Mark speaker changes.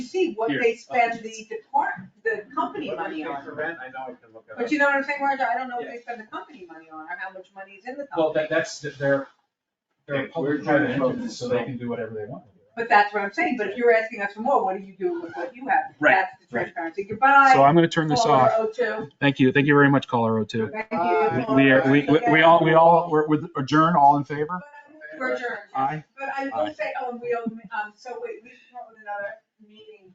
Speaker 1: you see what
Speaker 2: Here.
Speaker 1: they spend the department, the company money on.
Speaker 2: For rent, I know I can look it
Speaker 1: But
Speaker 2: up.
Speaker 1: you know what I'm saying, Roger, I don't know if they spend the company money on or how much money is in the
Speaker 3: Well,
Speaker 1: company,
Speaker 3: that, that's, that they're, they're a
Speaker 2: Yeah, we're
Speaker 3: public
Speaker 2: trying to
Speaker 3: private entity,
Speaker 2: focus,
Speaker 3: so they
Speaker 2: so-
Speaker 3: can do whatever they want.
Speaker 1: but that's what I'm saying, but if you're asking us for more, what do you do with what you have?
Speaker 3: Right,
Speaker 1: That's the transparency, goodbye,
Speaker 4: So I'm gonna turn this
Speaker 1: caller
Speaker 4: off.
Speaker 1: O two,
Speaker 4: Thank you. Thank you very much, caller O two.
Speaker 1: thank
Speaker 2: Bye.
Speaker 1: you.
Speaker 4: We are, we, we- we all, we all, we're we're adjourned, all in favor?
Speaker 1: We're adjourned.
Speaker 4: Aye.
Speaker 1: But I will say, oh, we, um, um, so wait, we should come up with another meeting